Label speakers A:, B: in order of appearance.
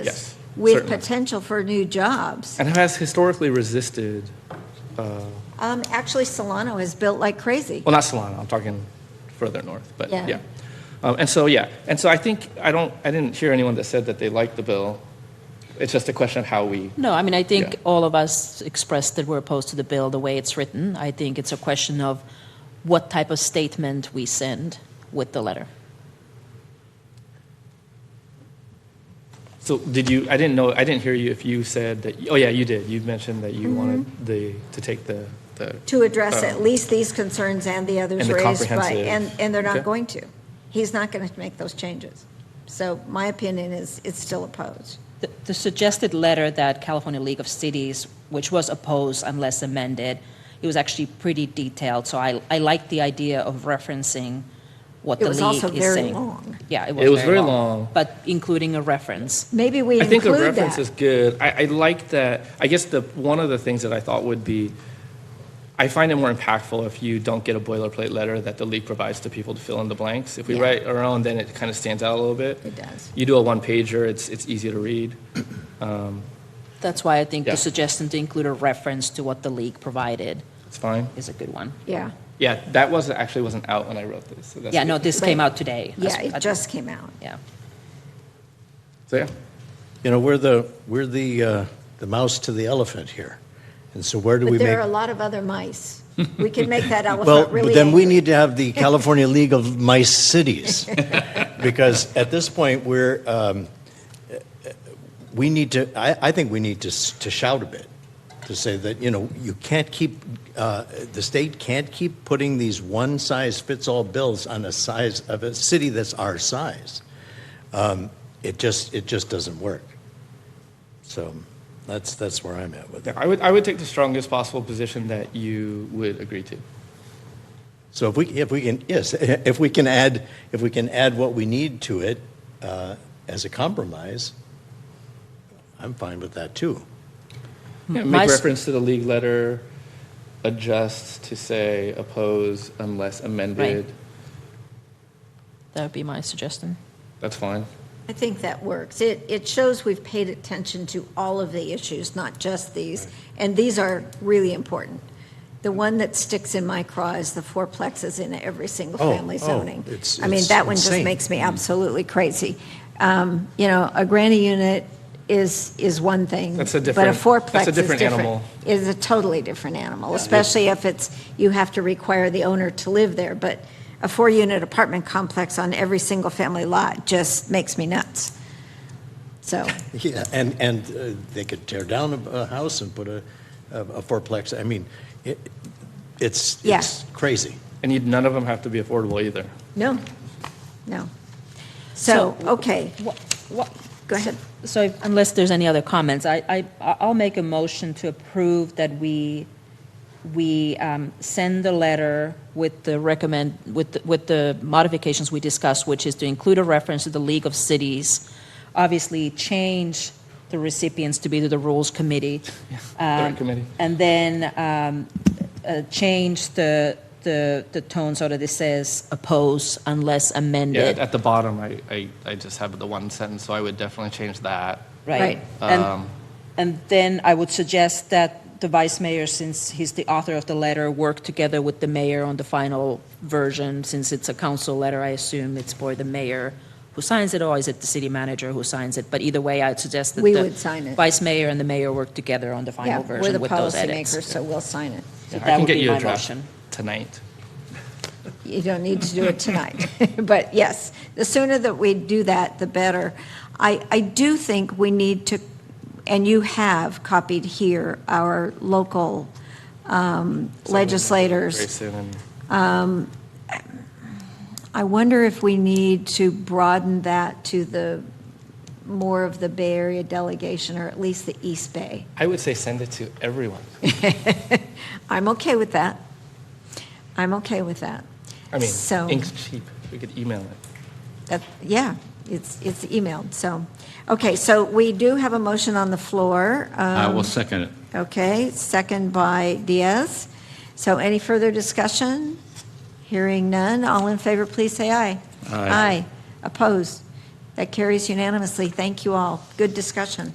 A: Yes,
B: With
A: certainly.
B: potential for new jobs.
A: and has historically resisted, uh,
B: Um, actually, Solano has built like crazy.
A: well, not Solana, I'm talking further north, but
B: Yeah.
A: yeah. Um, And so, yeah, and so I think, I don't, I didn't hear anyone that said that they liked the bill. It's just a question of how we,
C: No, I mean, I think
A: Yeah.
C: all of us expressed that we're opposed to the bill the way it's written. I think it's a question of what type of statement we send with the letter.
A: so did you, I didn't know, I didn't hear you if you said that, oh, yeah, you did. You mentioned that you wanted the, to take the, the.
B: Mm-hmm. to address
A: um,
B: at least these concerns and the others
A: and the
B: raised by,
A: comprehensive-
B: and, and they're not
A: Okay.
B: going to. He's not going to make those changes. So my opinion is, it's still opposed.
C: The, the suggested letter that California League of Cities, which was opposed unless amended, it was actually pretty detailed. So I, I like the idea of referencing what
B: It
C: the
B: was
C: league
B: also
C: is
B: very
C: saying.
B: long.
C: Yeah, it was,
A: It was very long.
C: but including a reference.
B: Maybe we
A: I think the
B: include
A: reference is
B: that.
A: good. I, I like that. I guess the one of the things that I thought would be, I find it more impactful if you don't get a boilerplate letter that the league provides to people to fill in the blanks. If we
C: Yeah.
A: write our own, then it kind of stands out a little bit.
B: It does.
A: You do a one pager, it's it's easier to read.
C: That's why I think
A: Yeah.
C: the suggestion to include a reference to what the league provided
A: It's fine.
C: is a good one.
B: Yeah,
A: Yeah, that was actually wasn't out when I wrote this. So that's
C: Yeah, no,
A: good.
C: this came out today.
B: yeah,
C: I-
B: it just came out.
C: Yeah.
A: So yeah,
D: You know, we're the, we're the, uh, the mouse to the elephant here. And so where do we
B: But
D: make?
B: there are a lot of other mice. We can make that
D: Well,
B: elephant really
D: but then we
B: angry.
D: need to have the California League of Mice Cities. Because at this point, we're, um, uh, we need to, I, I think we need to, s- to shout a bit. To say that, you know, you can't keep, uh, the state can't keep putting these one-size-fits-all bills on a size of a city that's our size. Um, It just, it just doesn't work. So that's, that's where I'm at with it.
A: yeah. I would I would take the strongest possible position that you would agree to.
C: Hmm.
D: So if we, if we can, yes, if we can add, if we can add what we need to it uh, as a compromise, I'm fine with that too.
A: Yeah,
C: My
A: make
C: s-
A: reference to the league letter, adjust to say oppose unless amended.
C: That would be my suggestion.
A: That's fine.
B: I think that works. It, it shows we've paid attention to all of the issues, not just these. And these are really important. The one that sticks in my craw is the fourplexes in every single
D: Oh,
B: family
D: oh,
B: zoning.
D: it's-
B: I mean,
D: it's
B: that one just
D: insane.
B: makes me absolutely crazy. Um, You know, a granny unit is, is one thing.
A: That's a
B: But a
A: different-
B: fourplex
A: that's a
B: is
A: different
B: different.
A: animal.
B: Is a totally different animal, especially if it's, you have to require the owner to live there. But a four-unit apartment complex on every single-family lot just makes me nuts. So,
D: Yeah, and, and uh, they could tear down a, a house and put a, a a fourplex, I mean, it, it's,
B: Yeah.
D: it's crazy.
A: And you, none of them have to be affordable either.
B: no, no. So,
C: So-
B: okay,
C: What, what,
B: go ahead.
C: So if- unless there's any other comments, I, I, I'll make a motion to approve that we, we um, send the letter with the recommend, with, the- with the modifications we discussed, which is to include a reference to the League of Cities, obviously change the recipients to be to the Rules Committee.
A: The
C: um,
A: committee.
C: And then um, uh, change the, the, the tone so that it says oppose unless
A: Yeah,
C: amended.
A: at the bottom, I, I, I just have the one sentence, so I would definitely change that.
C: Right.
B: Right.
A: Um,
C: And, and then I would suggest that the vice mayor, since he's the author of the letter, work together with the mayor on the final version. Since it's a council letter, I assume it's for the mayor who signs it, or is it the city manager who signs it? But either way, I'd suggest that
B: We
C: the
B: would sign it.
C: Vice mayor and the mayor work together on the
B: Yeah,
C: final
B: we're the
C: version with those edits.
B: policymakers, so we'll sign it.
C: So
A: I
C: that
A: can
C: would
A: get
C: be
A: you a
C: my
A: draft
C: motion.
A: Tonight.
B: You don't need to do it tonight. But yes, the sooner that we do that, the better. I, I do think we need to, and you have copied here our local um, legislators.
A: Grayson and-
B: I wonder if we need to broaden that to the, more of the Bay Area delegation, or at least the East Bay.
A: I would say send it to everyone.
B: I'm okay with that. I'm okay with that.
A: I mean,
B: So-
A: ink's cheap. We could email it.
B: That, yeah, it's, it's emailed, so. Okay, so we do have a motion on the floor.
E: I
B: um,
E: will second it.
B: Okay, second by Diaz. So any further discussion? Hearing none, all in favor, please say aye.
E: Aye.
B: Aye, opposed, That carries unanimously. Thank you all. Good discussion.